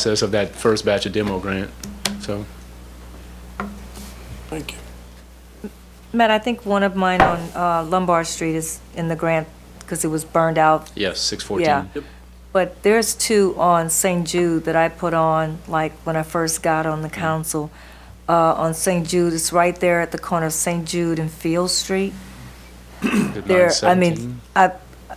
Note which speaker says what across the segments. Speaker 1: process of that first batch of demo grant, so.
Speaker 2: Thank you.
Speaker 3: Matt, I think one of mine on uh, Lombard Street is in the grant because it was burned out,
Speaker 1: Yes, six fourteen.
Speaker 3: Yeah. but there's two on St. Jude that I put on, like, when I first got on the council. Uh, On St. Jude, it's right there at the corner of St. Jude and Field Street. There, I mean, I-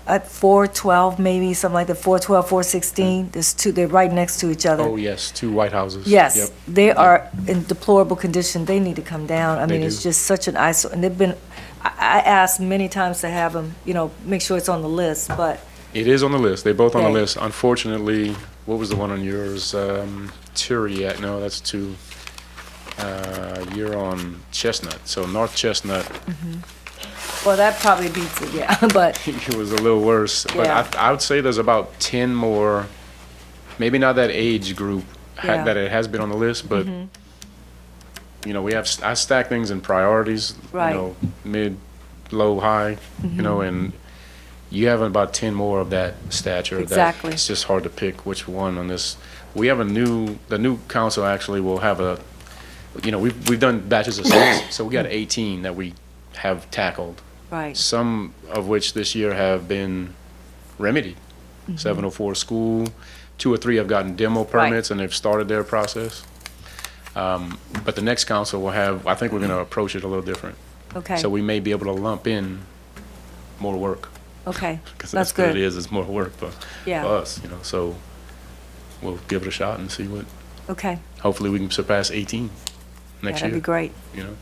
Speaker 3: at 412 maybe, something like that, 412, 416, there's two, they're right next to each other.
Speaker 1: Oh, yes, two White Houses. Yep.
Speaker 3: Yes, they are in deplorable condition. They need to come down. I
Speaker 1: They
Speaker 3: mean, it's
Speaker 1: do.
Speaker 3: just such an eyesore, and they've been, I, I asked many times to have them, you know, make sure it's on the list, but
Speaker 1: It is on the list, they're both on the
Speaker 3: Yeah.
Speaker 1: list. Unfortunately, what was the one on yours? Um, Turiat, no, that's two. Uh, you're on Chestnut, so North Chestnut,
Speaker 3: well, that probably beats it, yeah. But
Speaker 1: it was a little worse. But
Speaker 3: Yeah.
Speaker 1: I, I would say there's about ten more, maybe not that age group, ha-
Speaker 3: Yeah. Mm-hmm.
Speaker 1: that it has been on the list, but, you know, we have, s- I stack things in priorities, you
Speaker 3: Right. Mm-hmm.
Speaker 1: know, mid, low, high, you know, and you have about ten more of that stature. that
Speaker 3: Exactly.
Speaker 1: It's just hard to pick which one on this. We have a new, the new council actually will have a, you know, we've, we've done batches of six, so we got eighteen that we have tackled
Speaker 3: right,
Speaker 1: some of which this year have been remedied.
Speaker 3: Mm-hmm.
Speaker 1: 704 school, two or three have gotten demo permits and they've started their process. Um, But the next council will have, I think we're going to approach it a little different.
Speaker 3: Mm-hmm. okay,
Speaker 1: So we may be able to lump in more work.
Speaker 3: okay,
Speaker 1: 'cause
Speaker 3: that's
Speaker 1: what it
Speaker 3: good.
Speaker 1: is, it's more work for for
Speaker 3: Yeah,
Speaker 1: us, you know, so we'll give it a shot and see what,
Speaker 3: okay,
Speaker 1: hopefully we can surpass 18
Speaker 3: Yeah,
Speaker 1: next
Speaker 3: that'd be
Speaker 1: year,
Speaker 3: great.
Speaker 1: you know?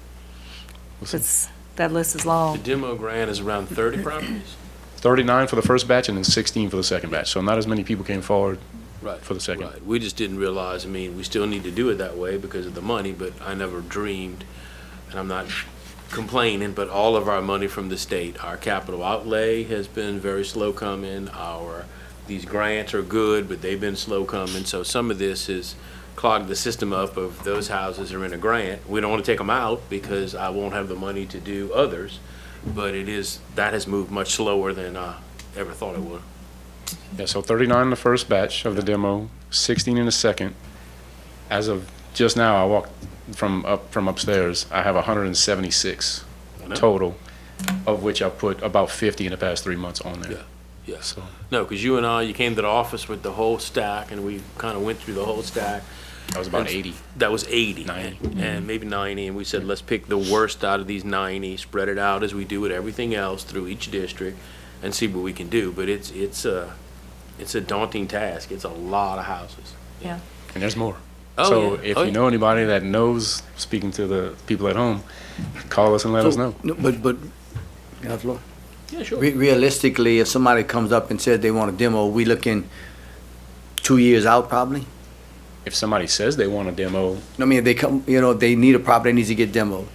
Speaker 1: We'll see.
Speaker 3: 'cause that list is
Speaker 2: The
Speaker 3: long,
Speaker 2: demo grant is around 30 properties?
Speaker 1: 39 for the first batch and then 16 for the second batch. So not as many people came forward
Speaker 2: Right.
Speaker 1: For the second.
Speaker 2: Right. We just didn't realize, I mean, we still need to do it that way because of the money, but I never dreamed, and I'm not complaining, but all of our money from the state, our capital outlay has been very slow coming, our, these grants are good, but they've been slow coming, so some of this has clogged the system up of those houses are in a grant. We don't want to take them out because I won't have the money to do others, but it is, that has moved much slower than I ever thought it would.
Speaker 1: Yeah, so 39 in the first batch of the demo, 16 in the second. As of just now, I walked from up from upstairs. I have 176
Speaker 2: I know.
Speaker 1: total, of which I put about 50 in the past three months on there.
Speaker 2: Yeah, yeah.
Speaker 1: So
Speaker 2: No, because you and I, you came to the office with the whole stack, and we kind of went through the whole stack.
Speaker 1: that was about 80.
Speaker 2: That was 80.
Speaker 1: 90.
Speaker 2: and- And maybe 90, and we said, let's pick the worst out of these 90, spread it out as we do with everything else through each district, and see what we can do. But it's, it's a, it's a daunting task. It's a lot of houses.
Speaker 3: yeah.
Speaker 1: And there's more.
Speaker 2: Oh,
Speaker 1: so
Speaker 2: yeah.
Speaker 1: if
Speaker 2: Oh,
Speaker 1: you
Speaker 2: yeah.
Speaker 1: know anybody that knows, speaking to the people at home, call us and let us know.
Speaker 4: No, But, but, can I have the floor?
Speaker 2: Yeah, sure.
Speaker 4: Re- realistically, if somebody comes up and says they want a demo, we looking two years out probably?
Speaker 1: If somebody says they want a demo
Speaker 4: I mean, if they come, you know, they need a property, that needs to get demoed.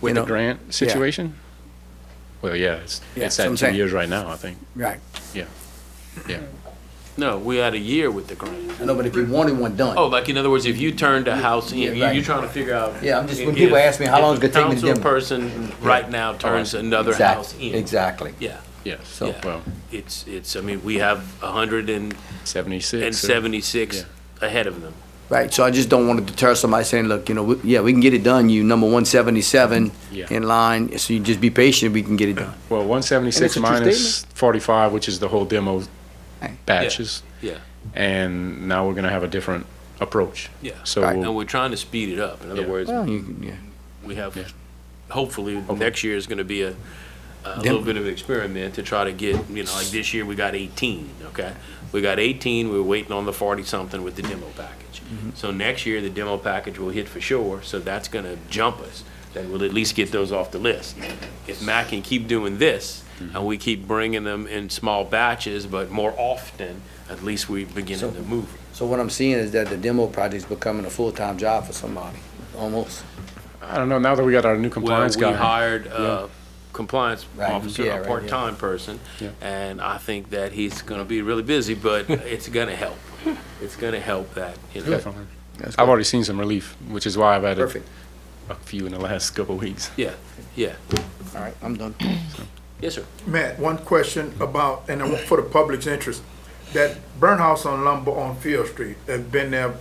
Speaker 1: with
Speaker 4: you know?
Speaker 1: the grant situation, well, yeah, it's,
Speaker 4: Yeah,
Speaker 1: it's
Speaker 4: that's what
Speaker 1: at
Speaker 4: I'm
Speaker 1: two
Speaker 4: saying.
Speaker 1: years right now, I think.
Speaker 4: Right.
Speaker 1: Yeah.
Speaker 2: No, we had a year with the grant.
Speaker 4: I know, but if you wanted one done.
Speaker 2: Oh, like, in other words, if you turned a house in,
Speaker 4: Yeah,
Speaker 2: you- you're
Speaker 4: right.
Speaker 2: trying to figure out.
Speaker 4: Yeah, I'm just- when
Speaker 2: if-
Speaker 4: people ask me, how
Speaker 2: if
Speaker 4: long it's gonna take me to
Speaker 2: A
Speaker 4: demo?
Speaker 2: council person right now turns another
Speaker 4: Exact-
Speaker 2: house in.
Speaker 4: Exactly.
Speaker 2: Yeah.
Speaker 1: Yeah, so,
Speaker 4: So-
Speaker 2: Yeah.
Speaker 1: well,
Speaker 2: It's, it's, I mean, we have a hundred and,
Speaker 1: 76.
Speaker 2: and
Speaker 1: so-
Speaker 2: seventy-six ahead of them.
Speaker 4: Right, so I just don't want to deter somebody saying, look, you know, we- yeah, we can get it done, you number one seventy-seven
Speaker 1: Yeah.
Speaker 4: in line, so you just be patient, we can get it done.
Speaker 1: Well, one
Speaker 4: And it's
Speaker 1: seventy-six
Speaker 4: a true
Speaker 1: minus forty-five, which is the whole demo
Speaker 4: Right.
Speaker 1: batches,
Speaker 2: Yeah.
Speaker 1: and now we're gonna have a different approach.
Speaker 2: Yeah.
Speaker 1: So
Speaker 4: Right.
Speaker 2: And
Speaker 1: we'll-
Speaker 2: we're trying to speed it up. In other
Speaker 1: Yeah.
Speaker 2: words,
Speaker 4: Well, you can- yeah.
Speaker 2: we
Speaker 1: Yeah.
Speaker 2: have, hopefully, next year is gonna be a, a little bit of an experiment to try to get, you know, like this year, we got eighteen, okay? We got eighteen, we we're waiting on the forty-something with the demo package. So next year, the demo package will hit for sure, so that's gonna jump us. Then we'll at least get those off the list. If Mac can keep doing this, and we keep bringing them in small batches, but more often, at least we beginning
Speaker 4: So-
Speaker 2: to move.
Speaker 4: So what I'm seeing is that the demo project's becoming a full-time job for somebody, almost.
Speaker 1: I don't know, now that we got our new
Speaker 2: Well,
Speaker 1: compliance
Speaker 2: we
Speaker 1: guy,
Speaker 2: hired a compliance
Speaker 4: Right,
Speaker 2: officer,
Speaker 4: yeah,
Speaker 2: a
Speaker 4: right,
Speaker 2: part-time person,
Speaker 1: Yeah.
Speaker 2: and I think that he's gonna be really busy, but it's gonna help. It's gonna help that, you know.
Speaker 1: definitely.
Speaker 4: That's
Speaker 1: I've
Speaker 4: good.
Speaker 1: already seen some relief, which is why I've added
Speaker 4: Perfect,
Speaker 1: a few in the last couple of weeks.
Speaker 2: Yeah, yeah.
Speaker 4: all right, I'm done.
Speaker 2: Yes, sir.
Speaker 5: Matt, one question about, and I want- for the public's interest, that burn house on Lumber on Field Street, that's been there